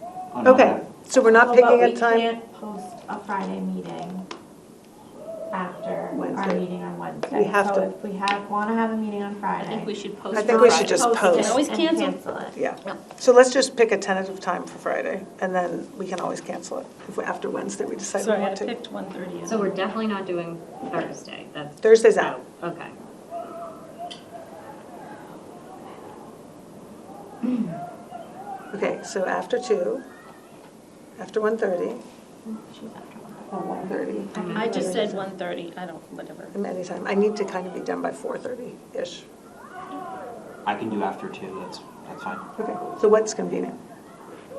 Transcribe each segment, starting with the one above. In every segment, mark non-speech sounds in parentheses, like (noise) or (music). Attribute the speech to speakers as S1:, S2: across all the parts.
S1: Oh,
S2: on
S3: Okay,
S2: Monday.
S3: so we're not
S4: Well,
S3: picking
S4: but
S3: a time?
S4: we can't post a Friday meeting after our
S3: Wednesday.
S4: meeting on Wednesday.
S3: We have to.
S4: So if we have, want to have a meeting on
S2: I think we
S4: Friday.
S2: should post.
S3: I think we
S2: Friday.
S3: should just
S4: post it
S3: post.
S2: Always
S4: and
S2: cancel.
S4: it.
S3: Yeah.
S2: No.
S3: So let's just pick a tentative time for Friday, and then we can always cancel it if we- after Wednesday we decide we
S2: Sorry, I
S3: want to.
S2: picked one thirty.
S5: So we're definitely not doing Thursday, that's.
S3: Thursday's out.
S5: Oh, Okay.
S3: Okay, so after two, after 1:30,
S4: She's after one.
S3: or 1:30,
S2: I just said one thirty, I don't, whatever.
S3: and anytime. I need to kind of be done by 4:30-ish.
S1: I can do after two, that's, that's fine.
S3: Okay, so what's convenient?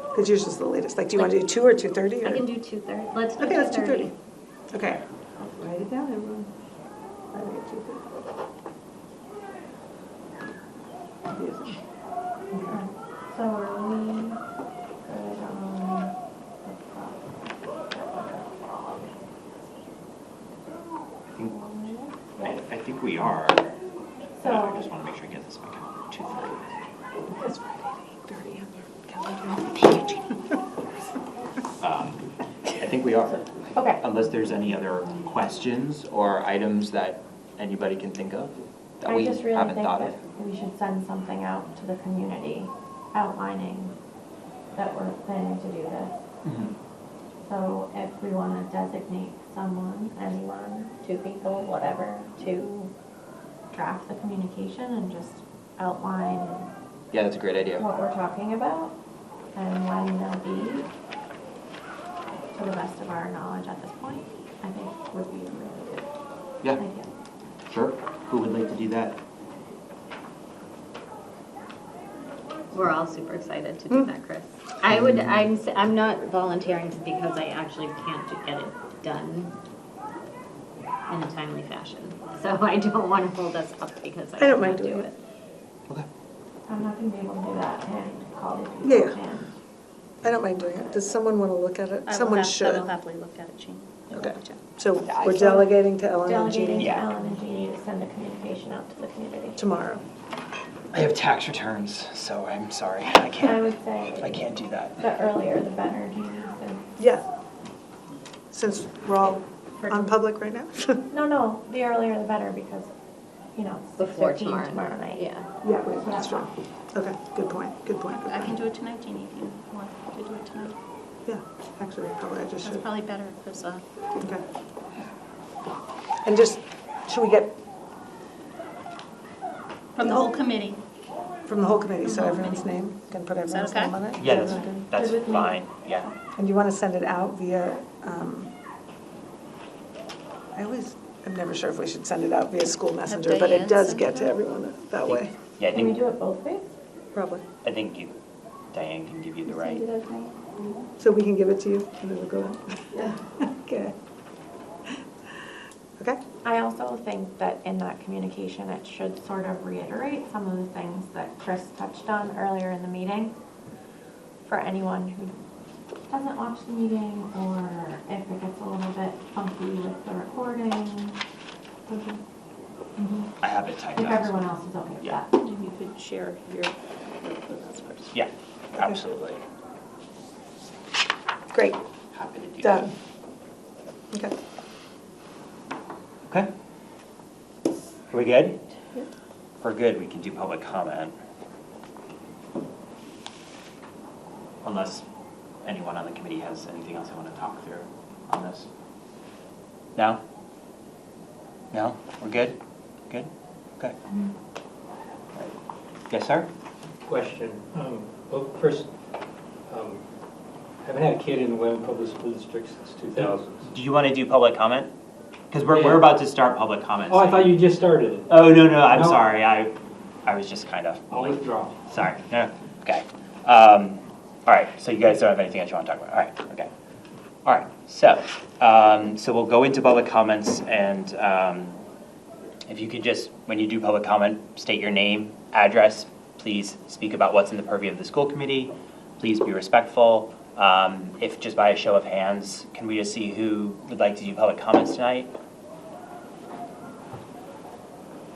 S3: Because yours is the latest. Like, do you want to do two or 2:30?
S5: I
S3: or-
S5: can do two thirty, let's do
S3: Okay,
S5: two
S3: let's do
S5: thirty.
S3: 2:30. Okay. Write it down, everyone. I think it's 2:30. Yes.
S4: So are we good on
S1: I think,
S4: the, right?
S1: I think we are. I
S4: So,
S1: just want to make sure I get this back out, two thirty.
S3: It's Friday, 8:30 on your calendar.
S1: Um, I think we are.
S4: Okay.
S1: Unless there's any other questions or items that anybody can think of that
S4: I
S1: we
S4: just really
S1: haven't
S4: think
S1: thought of.
S4: that we should send something out to the community outlining that we're planning to do this.
S1: Mhm.
S4: So if we want to designate someone, anyone, two people, whatever, to draft the communication and just outline
S1: Yeah, that's a great idea.
S4: what we're talking about and when they'll be, to the best of our knowledge at this point, I think would be a really good
S1: Yeah,
S4: idea.
S1: sure. Who would like to do that?
S5: We're all super excited to
S3: Mm.
S5: do that, Chris. I would, I'm, s- I'm not volunteering because I actually can't do- get it done in a timely fashion. So (laughs) I don't want to hold us up because I
S3: I don't mind
S5: can't do
S3: doing
S5: it.
S1: Okay.
S4: I'm not going to be able to do that and call these people.
S3: Yeah.
S4: and-
S3: I don't mind doing it. Does someone want to look at
S2: I
S3: it?
S2: will
S3: Someone
S2: hap- I will
S3: should.
S2: happily look at it, Jean. I'll
S3: Okay.
S2: check.
S3: So
S1: Yeah, I
S3: we're
S1: saw-
S3: delegating to Ellen and
S4: Delegating
S3: Jeannie
S4: to
S1: Yeah.
S4: Ellen and Jeannie to send a communication out to the community.
S3: tomorrow.
S1: I have tax returns, so I'm sorry, I
S4: I
S1: can't,
S4: would say.
S1: I can't do that.
S4: The earlier, the better, Jeannie, so.
S3: Yeah. Since we're all on public right now. (laughs)
S4: No, no, the earlier the better because, you know, it's
S5: Before
S4: 6:15
S5: tomorrow.
S4: tomorrow night.
S5: Yeah.
S3: Yeah, wait, that's true. Okay, good point, good point, good
S2: I can
S3: point.
S2: do it tonight, Jeannie, if you want to do it tonight.
S3: Yeah, actually, probably I just
S2: That's
S3: should.
S2: probably better, because, uh,
S3: Okay. And just, should we get
S2: from the whole committee.
S3: from the whole committee, so
S2: Mhm.
S3: everyone's name? Can put
S2: that
S3: everyone's
S2: okay?
S3: name on it?
S1: Yeah, that's,
S3: Everyone
S1: that's
S4: Good with me.
S1: fine, yeah.
S3: good? And you want to send it out via, um, I always, I'm never sure if we should send it out via school messenger,
S2: they
S3: but it
S2: yet
S3: does
S2: sent
S3: get
S2: it
S3: to
S2: out?
S3: everyone that way,
S1: Yeah, I
S4: Can we
S1: think,
S4: do it both ways?
S3: probably.
S1: I think you, Diane can give you the
S4: Can we
S1: right.
S4: do those things?
S3: So we can give it to you and then we'll go out? Yeah. (laughs) Okay. Okay?
S4: I also think that in that communication, it should sort of reiterate some of the things that Chris touched on earlier in the meeting. For anyone who doesn't watch the meeting, or if it gets a little bit funky with the recording,
S1: I have it typed
S4: if
S1: out.
S4: everyone else is okay with
S1: Yeah.
S4: that.
S2: If you could share your, with us first.
S1: Yeah, absolutely.
S3: Great,
S1: Happy to do that.
S3: done. Okay.
S1: Okay. Are we good? We're good, we can do public comment. Unless anyone on the committee has anything else they want to talk through on this. No? No? We're good? Good? Okay. Yes, sir?
S6: question. Um, Well, first, um, I haven't had a kid in the Wyndham Public School District since 2000.
S1: Do you want to do public comment? Because we're, we're about to start public comment.
S6: Oh, I thought you just started it.
S1: Oh, no, no, I'm
S6: No.
S1: sorry, I, I was just kind of.
S6: I'll withdraw.
S1: Sorry, no, okay. Um, all right, so you guys don't have anything else you want to talk about, all right, okay. All right, so, um, so we'll go into public comments and, um, if you could just, when you do public comment, state your name, address, please speak about what's in the purview of the school committee, please be respectful. Um, if just by a show of hands, can we just see who would like to do public comments tonight?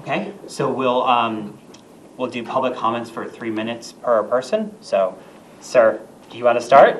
S1: Okay, so we'll, um, we'll do public comments for three minutes per person. So, sir, do you want to start?